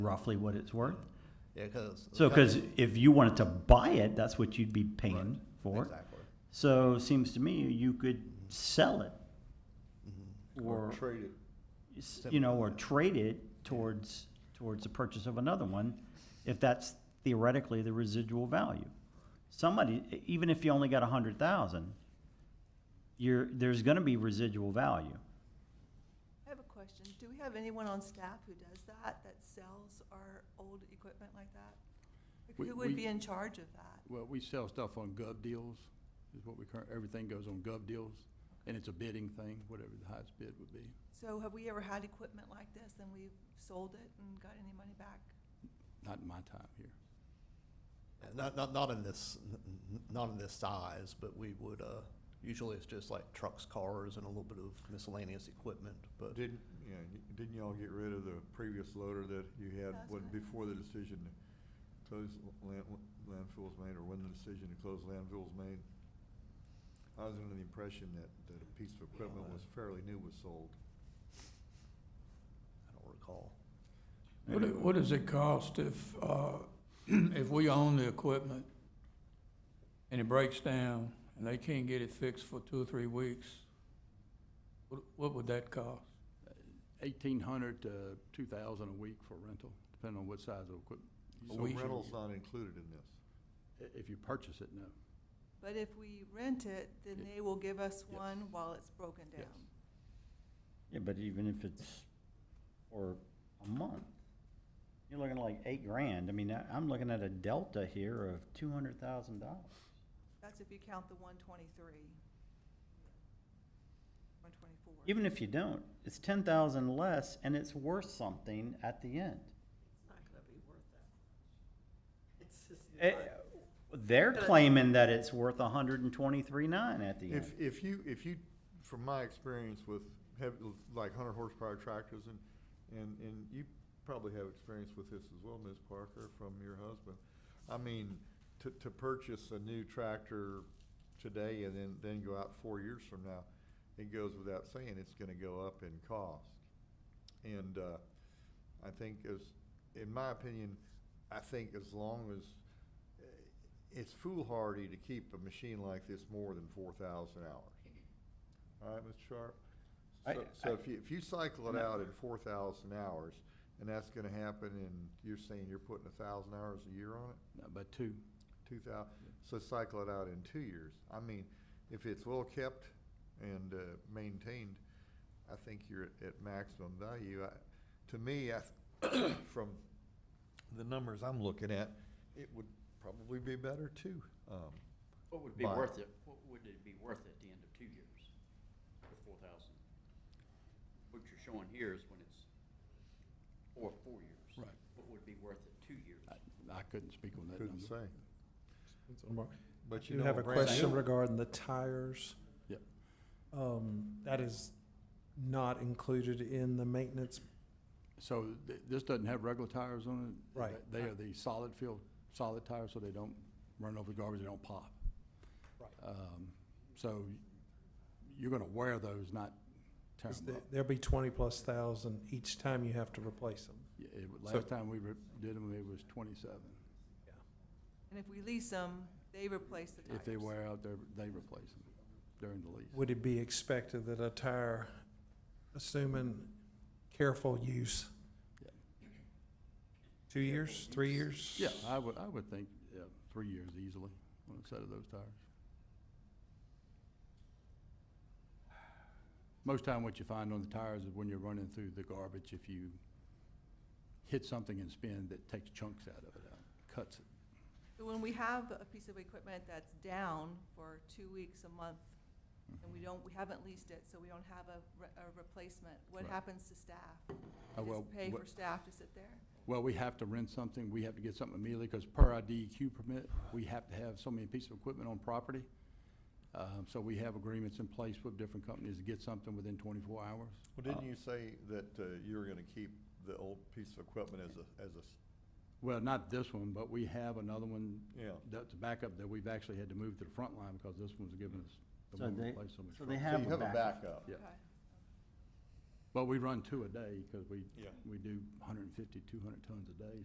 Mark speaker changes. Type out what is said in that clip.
Speaker 1: roughly what it's worth?
Speaker 2: Yeah, because.
Speaker 1: So, because if you wanted to buy it, that's what you'd be paying for.
Speaker 2: Exactly.
Speaker 1: So it seems to me you could sell it
Speaker 2: Mm-hmm.
Speaker 1: or,
Speaker 3: trade it.
Speaker 1: s- you know, or trade it towards, towards the purchase of another one if that's theoretically the residual value. Somebody, e- even if you only got a hundred thousand, you're, there's gonna be residual value.
Speaker 4: I have a question. Do we have anyone on staff who does that, that sells our old equipment like that? Like,
Speaker 3: We-
Speaker 4: Who would
Speaker 3: we-
Speaker 4: be in charge of that?
Speaker 3: Well, we sell stuff on gov deals, is what we current, everything goes on gov deals, and it's a bidding thing, whatever the highest bid would be.
Speaker 4: So have we ever had equipment like this and we've sold it and got any money back?
Speaker 3: Not in my time here.
Speaker 2: Not, not, not in this, n- n- not in this size, but we would, uh, usually it's just like trucks, cars, and a little bit of miscellaneous equipment, but.
Speaker 5: Didn't, yeah, y- didn't y'all get rid of the previous loader that you had,
Speaker 4: That's
Speaker 5: when,
Speaker 4: right.
Speaker 5: before the decision to close l- land, landfills made, or when the decision to close landfills made? I was under the impression that, that a piece of equipment was fairly new was sold.
Speaker 2: I don't recall.
Speaker 6: What, do- what does it cost if, uh, if we own the equipment and it breaks down and they can't get it fixed for two or three weeks? What, what would that cost?
Speaker 3: Eighteen hundred to two thousand a week for rental, depending on what size of equipment.
Speaker 5: So
Speaker 6: we-
Speaker 5: rental's uh, not included in this.
Speaker 3: If you purchase it, no.
Speaker 4: But if we rent it, then they will give us
Speaker 3: Yes.
Speaker 4: one while it's broken
Speaker 3: Yes.
Speaker 4: down.
Speaker 1: Yeah, but even if it's for a month, you're looking at like eight grand. I mean, I- I'm looking at a delta here of two hundred thousand dollars.
Speaker 4: That's if you count the one twenty-three. One twenty-four.
Speaker 1: Even if you don't, it's ten thousand less and it's worth something at the end. Eh, They're claiming that it's worth a hundred and twenty-three nine at the end.
Speaker 5: If, if you, if you, from my experience with heavy, like hundred horsepower tractors and, and, and you probably have experience with this as well, Ms. Parker, from your husband. I mean, to, to purchase a new tractor today and then, then go out four years from now, it goes without saying, it's gonna go up in cost. And, uh, I think as, in my opinion, I think as long as, uh, it's foolhardy to keep a machine like this more than four thousand hours. All right, Mr. Sharp?
Speaker 1: I-
Speaker 5: So- So if you, if you cycle it out in four thousand hours, and that's gonna happen, and you're saying you're putting a thousand hours a year on it,
Speaker 3: Not by two.
Speaker 5: two thou, so cycle it out in two years. I mean, if it's well-kept and, uh, maintained, I think you're at, at maximum value. I, to me, I, from the numbers I'm looking at, it would probably be better too, um.
Speaker 7: What would be
Speaker 5: Buy it.
Speaker 7: worth it, what would it be worth at the end of two years for four thousand? What you're showing here is when it's, or four years.
Speaker 3: Right.
Speaker 7: What would be worth at two years?
Speaker 3: I, I couldn't speak on that number.
Speaker 5: Couldn't say. But
Speaker 8: You have
Speaker 5: know,
Speaker 8: a
Speaker 5: brand
Speaker 8: question
Speaker 5: new-
Speaker 8: regarding the tires.
Speaker 3: Yep.
Speaker 8: Um, that is not included in the maintenance.
Speaker 3: So th- this doesn't have regular tires on it?
Speaker 8: Right.
Speaker 3: They are the solid field, solid tires, so they don't run over garbage, they don't pop.
Speaker 8: Right.
Speaker 3: Um, So you're gonna wear those, not tear
Speaker 8: 'cause
Speaker 3: them
Speaker 8: there-
Speaker 3: up.
Speaker 8: There'll be twenty plus thousand each time you have to replace them.
Speaker 3: Yeah, it-
Speaker 8: So-
Speaker 3: Last time we re- did them, it was twenty-seven.
Speaker 4: And if we lease them, they replace the tires.
Speaker 3: If they wear out, they're, they replace them during the lease.
Speaker 8: Would it be expected that a tire, assuming careful use?
Speaker 3: Yeah.
Speaker 8: Two years, three years?
Speaker 3: Yeah, I would, I would think, yeah, three years easily on a set of those tires. Most time what you find on the tires is when you're running through the garbage, if you hit something and spin, that takes chunks out of it, out, cuts it.
Speaker 4: So when we have a piece of equipment that's down for two weeks, a month, and we
Speaker 3: Mm-hmm.
Speaker 4: don't, we haven't leased it, so we don't have a, re- a replacement, what
Speaker 3: Right.
Speaker 4: happens to staff?
Speaker 3: Oh,
Speaker 4: We
Speaker 3: well,
Speaker 4: Just pay
Speaker 3: wha-
Speaker 4: for staff to sit there?
Speaker 3: Well, we have to rent something, we have to get something immediately, because per our DEQ permit, we have to have so many pieces of equipment on property. Um, so we have agreements in place with different companies to get something within twenty-four hours.
Speaker 5: Well, didn't you say that uh, you were gonna keep the old piece of equipment as a, as a, s-
Speaker 3: Well, not this one, but we have another one
Speaker 5: yeah,
Speaker 3: That's a backup that we've actually had to move to the front line because this one's giving us the
Speaker 1: So
Speaker 3: one
Speaker 1: they-
Speaker 3: place so much
Speaker 1: So they
Speaker 3: trouble.
Speaker 5: so
Speaker 1: have
Speaker 5: you
Speaker 1: a
Speaker 5: have a
Speaker 1: backup.
Speaker 5: backup?
Speaker 3: Yeah.
Speaker 4: Okay.
Speaker 3: But we run two a day because we,
Speaker 8: Yeah.
Speaker 3: we do 150, 200 tons a day.